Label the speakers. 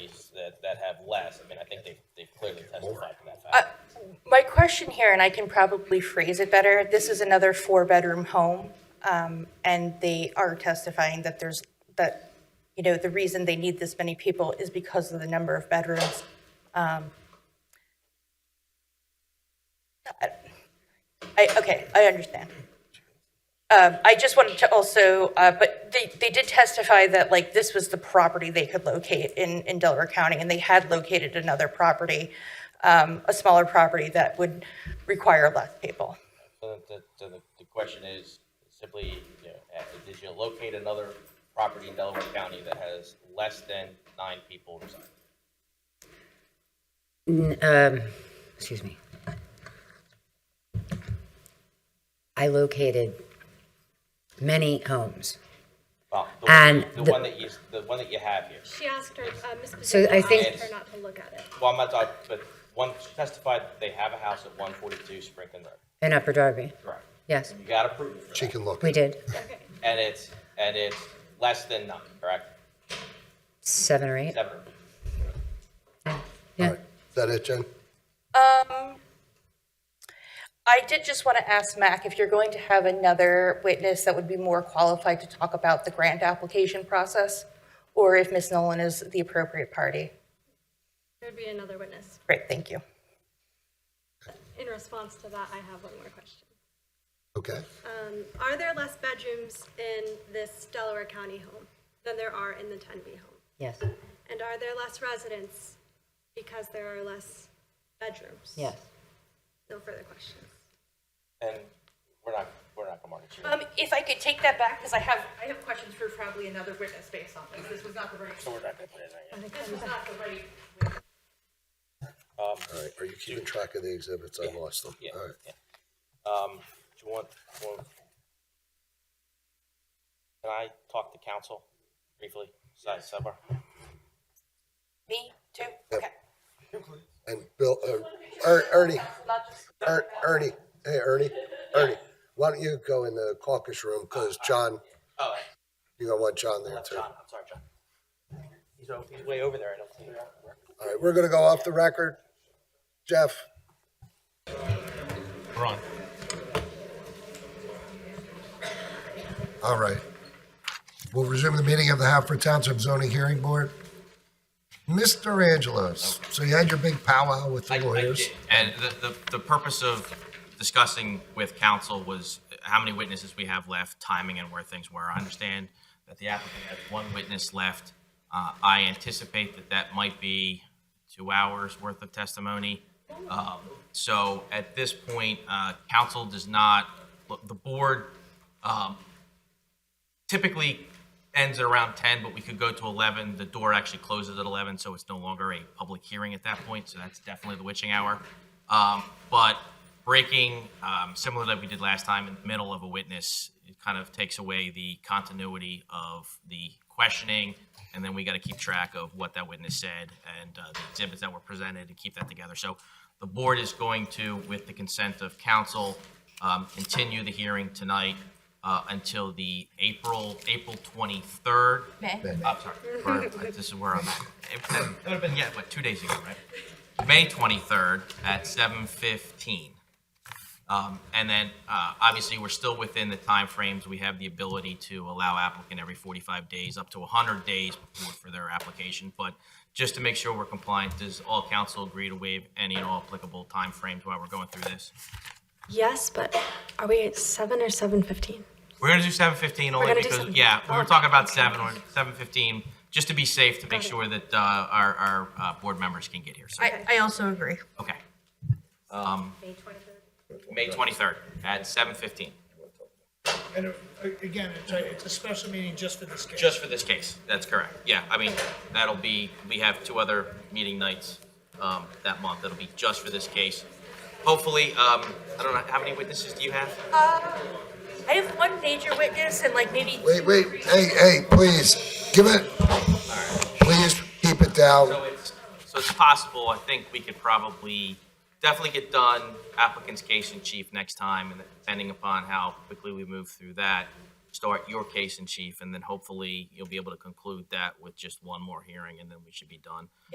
Speaker 1: that, that have less. I mean, I think they've, they've clearly testified to that
Speaker 2: Uh,
Speaker 1: fact.
Speaker 2: My question here, and I can probably phrase it better, this is another four-bedroom home, um, and they are testifying that there's, that, you know, the reason they need this many people is because of the number of bedrooms. Um, I, okay, I understand. Um, I just wanted to also, uh, but they, they did testify that like this was the property they could locate in, in Delaware County, and they had located another property, um, a smaller property that would require less people.
Speaker 1: So the, so the, the question is simply, you know, uh, did you locate another property in Delaware County that has less than nine people residing?
Speaker 3: Um, excuse me. I located many homes.
Speaker 1: Well, the-
Speaker 3: And
Speaker 1: The
Speaker 3: the-
Speaker 1: one that you, the one that you have here.
Speaker 4: She asked her, uh, Ms.
Speaker 3: So I
Speaker 4: Pizzuto
Speaker 3: think-
Speaker 4: asked her not to look at it.
Speaker 1: Well, I'm not talking, but one testified that they have a house at one forty-two Sprinklin Road.
Speaker 3: In Upper Darby,
Speaker 1: Correct.
Speaker 3: yes,
Speaker 1: You got approved for
Speaker 5: She
Speaker 1: that.
Speaker 5: can look.
Speaker 3: we did,
Speaker 4: Okay.
Speaker 1: And it's, and it's less than nine, correct?
Speaker 3: seven or eight,
Speaker 1: Seven.
Speaker 5: All
Speaker 3: yeah.
Speaker 5: right. Is that it, Jen?
Speaker 2: I did just want to ask Mac if you're going to have another witness that would be more qualified to talk about the grant application process, or if Ms. Nolan is the appropriate party.
Speaker 4: There'd be another witness.
Speaker 2: Great, thank you.
Speaker 4: In response to that, I have one more question.
Speaker 1: Uh,
Speaker 5: Okay.
Speaker 4: Um, Are there less bedrooms in this Delaware County home than there are in the 10B home?
Speaker 3: yes,
Speaker 4: And are there less residents because there are less bedrooms?
Speaker 3: yes.
Speaker 4: No further questions.
Speaker 1: And we're not, we're not gonna market you.
Speaker 2: Um, if I could take that back, because I have, I have questions for probably another witness based on this. This was not the right,
Speaker 1: So we're not gonna put it in there yet.
Speaker 2: this was not the right.
Speaker 5: All right. Are you keeping track of the exhibits? I lost them.
Speaker 1: Yeah,
Speaker 5: All right.
Speaker 1: yeah. Um, do you want, do you want- Can I talk to council briefly, side sidebar?
Speaker 2: Me, too? Okay.
Speaker 5: And Bill, uh, Er- Ernie,
Speaker 2: Not just-
Speaker 5: Er- Ernie, hey, Ernie, Ernie, why don't you go in the caucus room? Because John,
Speaker 1: Oh,
Speaker 5: you're gonna want John there
Speaker 1: I'm
Speaker 5: too.
Speaker 1: John, I'm sorry, John. He's, o- he's way over there, I don't see him.
Speaker 5: All right, we're gonna go off the record. Jeff,
Speaker 1: We're on.
Speaker 5: all right. We'll resume the meeting of the Halford Township Zoning Hearing Board. Mr. Angelos, so you had your big powwow with the
Speaker 6: I- I
Speaker 5: lawyers.
Speaker 6: did. And the, the, the purpose of discussing with council was how many witnesses we have left, timing and where things were. I understand that the applicant has one witness left. Uh, I anticipate that that might be two hours worth of testimony. Um, so at this point, uh, council does not, the board, um, typically ends at around 10, but we could go to 11. The door actually closes at 11, so it's no longer a public hearing at that point, so that's definitely the witching hour. Um, But breaking, um, similar that we did last time, in the middle of a witness, it kind of takes away the continuity of the questioning, and then we got to keep track of what that witness said and uh, the exhibits that were presented and keep that together. So the board is going to, with the consent of council, um, continue the hearing tonight uh, until the April, April 23rd.
Speaker 2: May.
Speaker 6: I'm sorry, or, uh, this is where I'm, it that would have been, yeah, what, two days ago, right? May 23rd at 7:15. Um, And then, uh, obviously, we're still within the timeframes. We have the ability to allow applicant every 45 days, up to 100 days before- for their application. But just to make sure we're compliant, does all council agree to waive any and all applicable timeframes while we're going through this?
Speaker 4: Yes, but are we at 7 or 7:15?
Speaker 6: We're gonna do seven fifteen only
Speaker 4: gonna do
Speaker 6: because,
Speaker 4: 7:15.
Speaker 6: yeah, we were
Speaker 4: Okay.
Speaker 6: talking about seven or seven fifteen, just to be safe, to make
Speaker 4: Got it.
Speaker 6: sure that uh, our, our uh, board members can get here, so,
Speaker 2: I, I also agree.
Speaker 6: okay. Um, May twenty-third at seven fifteen,
Speaker 7: And uh, again, it's a, it's a special meeting just for this case.
Speaker 6: just for this case, that's correct, yeah, I mean, that'll be, we have two other meeting nights um, that month, that'll be just for this case. Hopefully, um, I don't know, how many witnesses do you have?
Speaker 2: I have one major witness and like maybe.
Speaker 5: Wait, wait, hey, hey, please, give it, please keep it down.
Speaker 6: So it's, so it's possible, I think we could probably definitely get done applicant's case in chief next time, and depending upon how quickly we move through that, start your case in chief, and then hopefully you'll be able to conclude that with just one more hearing, and then we should be done.